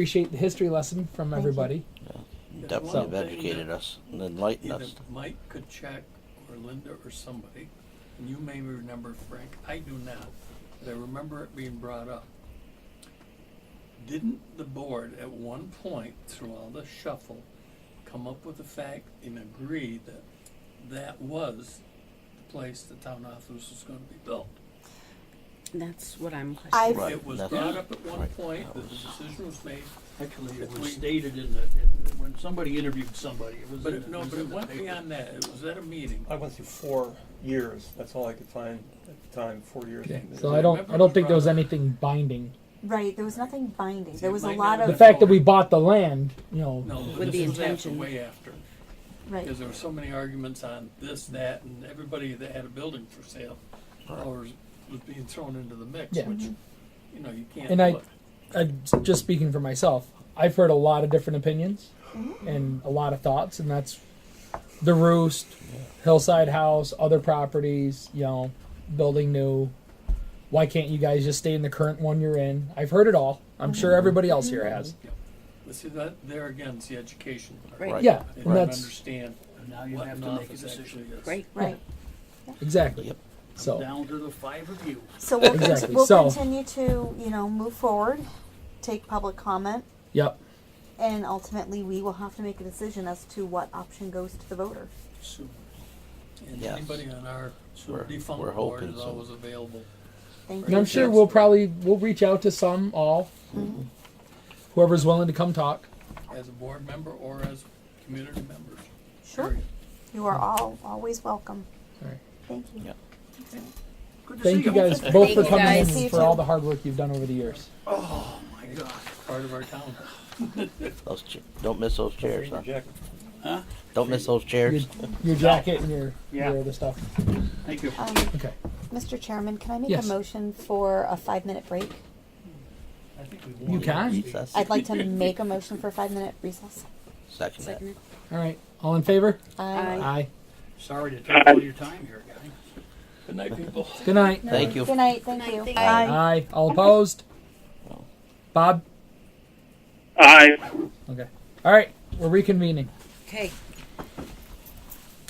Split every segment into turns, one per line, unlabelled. appreciate the history lesson from everybody.
You
Definitely have
One thing
educated
that
us and enlightened
Either
us.
Mike could check, or Linda, or somebody, and you may remember, Frank, I do not, but I remember it being brought up. Didn't the board at one point through all the shuffle come up with the fact and agree that that was the place the town office was gonna be built?
That's what I'm
I've
questioning.
Right.
It was
that's-
brought up at one
right,
point,
that
that the
was-
decision was made,
Actually, it
If
was
we-
stated in the, in- when somebody interviewed somebody, it was
but
in
it,
the-
no,
was
but
in
it
the
went
paper.
beyond that, it was at a meeting.
I went through four years. That's all I could find at the time. Four years.
Okay,
It
so
was-
I don't I don't think there was anything binding.
Right, there was nothing binding.
See,
There was a
mine
lot
now-
The
of,
fact that we bought the land, you know,
No, but
With the
this was after,
intention.
way after.
right,
Because there were so many arguments on this, that, and everybody that had a building for sale or was was being thrown into the mix,
Yeah.
which, you know, you can't
And I-
do it.
I, just speaking for myself, I've heard a lot of different opinions and a lot of thoughts, and that's the roost, hillside house, other properties, you know, building new. Why can't you guys just stay in the current one you're in? I've heard it all. I'm sure everybody else here has.
But see, that, there again, it's the education part.
Right.
Right.
Yeah,
They
and
don't
that's
understand
And Now you
what
have
an
to make a
office
decision.
actually is.
Right.
right.
exactly.
Yep.
So
Down to the five of you.
So we'll, con-
Exactly.
we'll
So-
continue to, you know, move forward, take public comment,
yep.
and ultimately we will have to make a decision as to what option goes to the voter.
Soon.
And
Yes.
anybody on our
We're-
defunct
we're
board
hoping
is
so.
always available.
Thank
And
you.
I'm sure we'll probably we'll reach out to some all,
Mm-hmm.
whoever's willing to come talk.
As a board member or as community members.
Sure.
period.
You are all always welcome.
All right.
Thank you.
Yeah.
Good to
Thank
see
you guys
Thank
both
you
for coming
guys.
in
See you
and for
too.
all the hard work you've done over the years.
Oh, my God.
Part of our town.
Those cha- don't miss those
Don't
chairs,
forget
huh?
your jacket.
Don't miss those chairs.
Your, your jacket and your,
Yeah.
your other stuff.
Thank you.
Um,
Okay.
Mr. Chairman, can I make
Yes.
a motion for a five minute break?
I think we
You
won.
can.
Recess.
I'd like to make a motion for a five minute recess.
Second that.
Second.
All right. All in favor?
Aye.
Aye.
Sorry to take all your time here, guy.
Good night, people.
Good night.
Thank you.
Good night. Thank
Good night,
you.
thank
Bye.
Aye. All opposed? Bob?
Aye.
Okay. All right. We're reconvening.
Okay.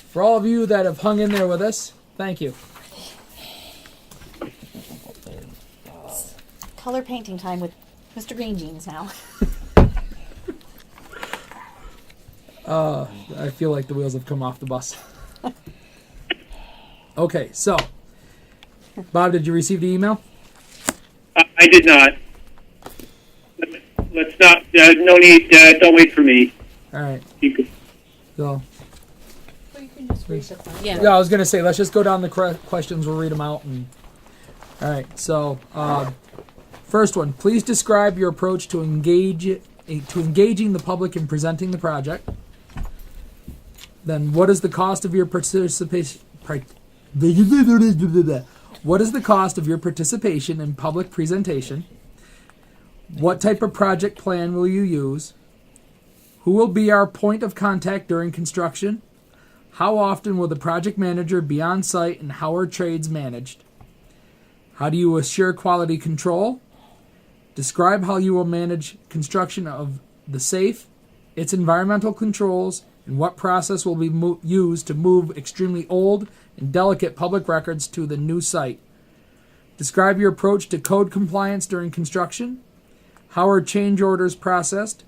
For all of you that have hung in there with us, thank you.
Color painting time with Mr. Green Jeans now.
I feel like the wheels have come off the bus. okay. So, Bob, did you receive the email?
I I did not. Let's not. Uh, no need. Uh, don't wait for me.
All right.
You can,
So,
Well, you can just raise the flag.
Yeah.
yeah, I was going to say, let's just go down the cre- questions. We'll read them out. And, all right. So, um, first one. Please describe your approach to engage eh, to engaging the public in presenting the project. Then, what is the cost of your participation? What is the cost of your participation in public presentation? What type of project plan will you use? Who will be our point of contact during construction? How often will the project manager be on site and how are trades managed? How do you assure quality control? Describe how you will manage construction of the safe, its environmental controls, and what process will be mo- used to move extremely old and delicate public records to the new site. Describe your approach to code compliance during construction. How are change orders processed?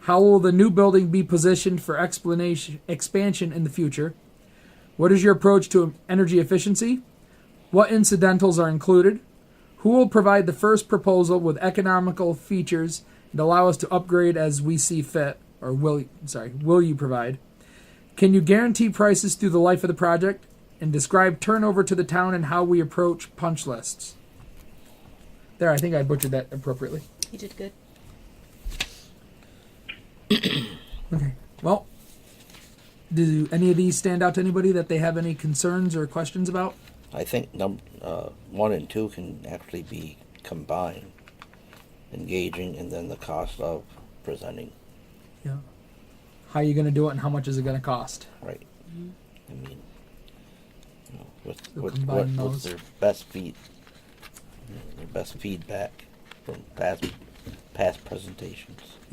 How will the new building be positioned for explanation, expansion in the future? What is your approach to energy efficiency? What incidentals are included? Who will provide the first proposal with economical features and allow us to upgrade as we see fit? Or will sorry, will you provide? Can you guarantee prices through the life of the project? And describe turnover to the town and how we approach punch lists. There, I think I butchered that appropriately.
You did good.
Well, do any of these stand out to anybody that they have any concerns or questions about?
I think num- uh, one and two can actually be combined. Engaging and then the cost of presenting.
Yeah. How are you going to do it and how much is it going to cost?
Right. I mean, you know, with,
We'll
with what,
combine
what's
those.
their best feed, their best feedback from past past presentations.